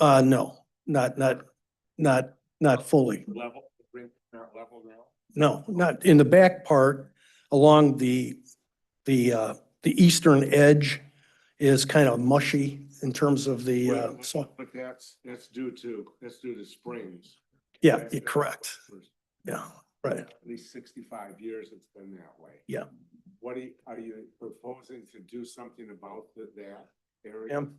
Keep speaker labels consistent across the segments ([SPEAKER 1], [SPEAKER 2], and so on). [SPEAKER 1] Uh, no, not, not, not, not fully.
[SPEAKER 2] Level, bring parent level now?
[SPEAKER 1] No, not in the back part along the, the, uh, the eastern edge is kind of mushy in terms of the, uh,
[SPEAKER 2] Well,
[SPEAKER 1] so,
[SPEAKER 2] But that's, that's due to, that's due to springs.
[SPEAKER 1] yeah,
[SPEAKER 2] That's-
[SPEAKER 1] you're
[SPEAKER 2] that's
[SPEAKER 1] correct.
[SPEAKER 2] for
[SPEAKER 1] Yeah, right.
[SPEAKER 2] At least sixty-five years it's been that way.
[SPEAKER 1] Yeah.
[SPEAKER 2] What are you, are you proposing to do something about the- that area?
[SPEAKER 1] Ma'am?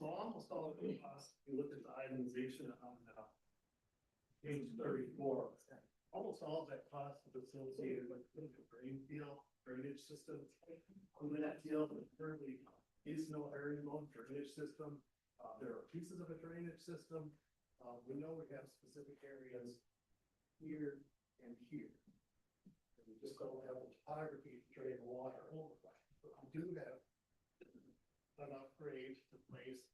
[SPEAKER 3] So almost all of the costs, if you look at the itemization on uh page thirty-four, almost all of that cost is associated with the drain field drainage system. Under that field, there currently is no area loan drainage system. Uh, there are pieces of a drainage system. Uh, we know we have specific areas here and here. And We just don't have the topography to drain water over. But we do have an upgrade to place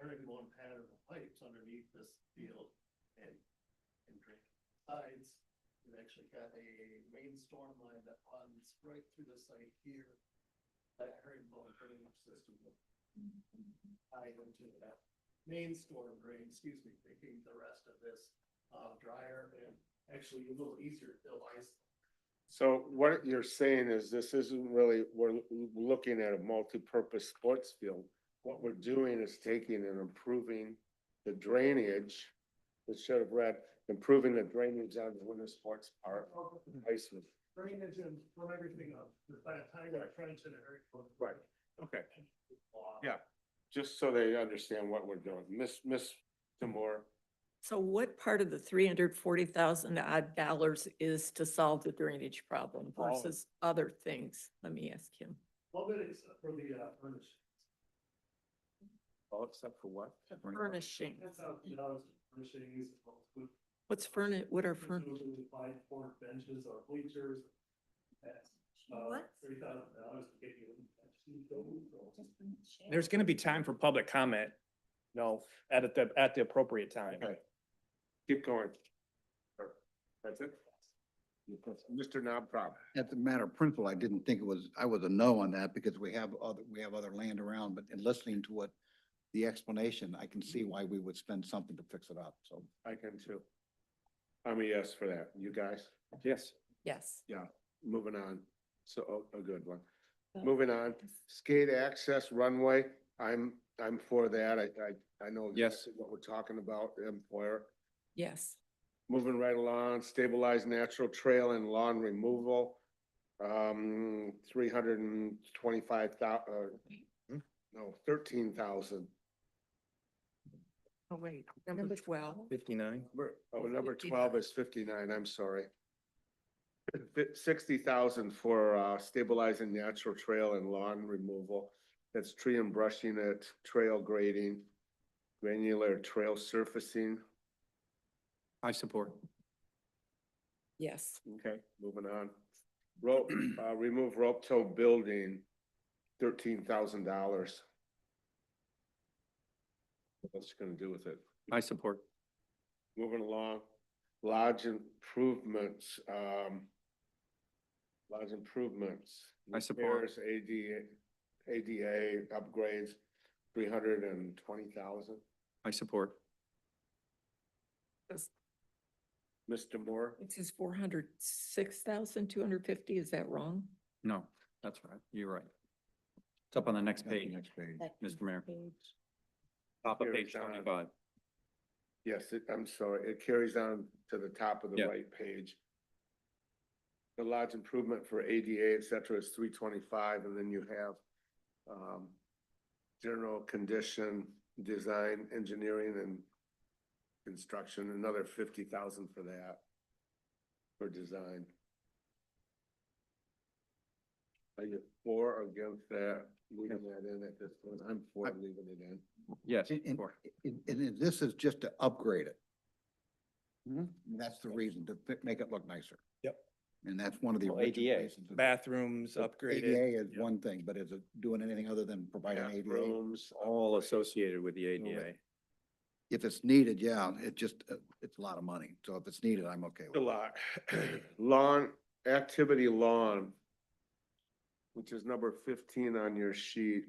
[SPEAKER 3] Eric one pattern of pipes underneath this field and, and drain sides. We've actually got a main storm line that runs right through the site here. That herringbone drainage system will tie into that main storm drain, excuse me, making the rest of this, uh, drier and actually a little easier to ice.
[SPEAKER 2] So what you're saying is this isn't really, we're looking at a multi-purpose sports field. What we're doing is taking and improving the drainage. It should have read, improving the drainage on the winter sports park. ice rink.
[SPEAKER 3] Drainage and from everything up, by the time I trench and herringbone.
[SPEAKER 2] Right. Okay,
[SPEAKER 3] Block.
[SPEAKER 2] Yeah. just so they understand what we're doing. Miss, Miss Demore,
[SPEAKER 4] So what part of the three hundred forty thousand odd dollars is to solve the drainage problem
[SPEAKER 2] All of it.
[SPEAKER 4] versus other things? Let me ask him.
[SPEAKER 3] Well, but it's for the uh, furnish.
[SPEAKER 2] all except for what?
[SPEAKER 4] Furnishing.
[SPEAKER 3] That's how, you know, it's furnishings, with
[SPEAKER 4] What's furni, what are furn,
[SPEAKER 3] presumably five four benches or bleachers. That's about
[SPEAKER 4] What?
[SPEAKER 3] three thousand dollars to get you. a seat over.
[SPEAKER 5] There's gonna be time for public comment, no, at the, at the appropriate time.
[SPEAKER 2] Okay. Keep going. That's it? Mr. Knob Problem.
[SPEAKER 6] As a matter of principle, I didn't think it was, I was a no on that because we have other, we have other land around, but in listening to what the explanation, I can see why we would spend something to fix it up, so.
[SPEAKER 2] I can too. I'm a yes for that. You guys?
[SPEAKER 5] Yes.
[SPEAKER 4] yes.
[SPEAKER 2] Moving on, so, oh, a good one. Moving on, skate access runway, I'm, I'm for that, I, I, I know.
[SPEAKER 5] Yes.
[SPEAKER 2] exactly What we're talking about, employer,
[SPEAKER 4] Yes.
[SPEAKER 2] moving right along, stabilize natural trail and lawn removal. Um, three hundred and twenty-five thou, uh, no, thirteen thousand.
[SPEAKER 4] Oh, wait, number twelve.
[SPEAKER 5] Fifty-nine.
[SPEAKER 2] Oh, number twelve is fifty-nine, I'm sorry. Sixty thousand for uh, stabilizing natural trail and lawn removal. That's tree and brushing it, trail grading, granular trail surfacing.
[SPEAKER 5] I support.
[SPEAKER 4] Yes,
[SPEAKER 2] Okay, moving on. Rope, uh, remove rope tow building, thirteen thousand dollars. What's it gonna do with it?
[SPEAKER 5] I support.
[SPEAKER 2] Moving along, lodge improvements, um, lodge improvements.
[SPEAKER 5] I support.
[SPEAKER 2] repairs, ADA, ADA upgrades, three hundred and twenty thousand.
[SPEAKER 5] I support.
[SPEAKER 2] Mr. Moore,
[SPEAKER 4] it says four hundred six thousand two hundred fifty. Is that wrong?
[SPEAKER 5] No, that's right. You're right. It's up on the next page,
[SPEAKER 6] Next page.
[SPEAKER 5] Mr. Mayor. Top of
[SPEAKER 2] Here,
[SPEAKER 5] page
[SPEAKER 2] John.
[SPEAKER 5] twenty-five.
[SPEAKER 2] yes, it- I'm sorry, it carries on to the top of the
[SPEAKER 5] Yeah.
[SPEAKER 2] right page. The lodge improvement for ADA, et cetera, is three twenty-five, and then you have, um, general condition, design, engineering, and construction, another fifty thousand for that, for design. Are you for or against that, leaving that in at this point? I'm for
[SPEAKER 6] I-
[SPEAKER 2] leaving it in.
[SPEAKER 5] Yes,
[SPEAKER 6] And- and-
[SPEAKER 5] support.
[SPEAKER 6] And, and this is just to upgrade it. That's the reason, to fi- make it look nicer.
[SPEAKER 7] Yep.
[SPEAKER 6] And that's one of the.
[SPEAKER 7] Well,
[SPEAKER 6] original
[SPEAKER 7] ADA,
[SPEAKER 6] reasons of-
[SPEAKER 7] bathrooms upgraded.
[SPEAKER 6] ADA is one thing, but is it doing anything other than providing
[SPEAKER 2] Yeah,
[SPEAKER 6] ADA?
[SPEAKER 2] Rooms,
[SPEAKER 5] All associated with the ADA.
[SPEAKER 6] If it's needed, yeah, it just, uh, it's a lot of money, so if it's needed, I'm okay with
[SPEAKER 2] A
[SPEAKER 6] it.
[SPEAKER 2] lot. Lawn, activity lawn, which is number fifteen on your sheet.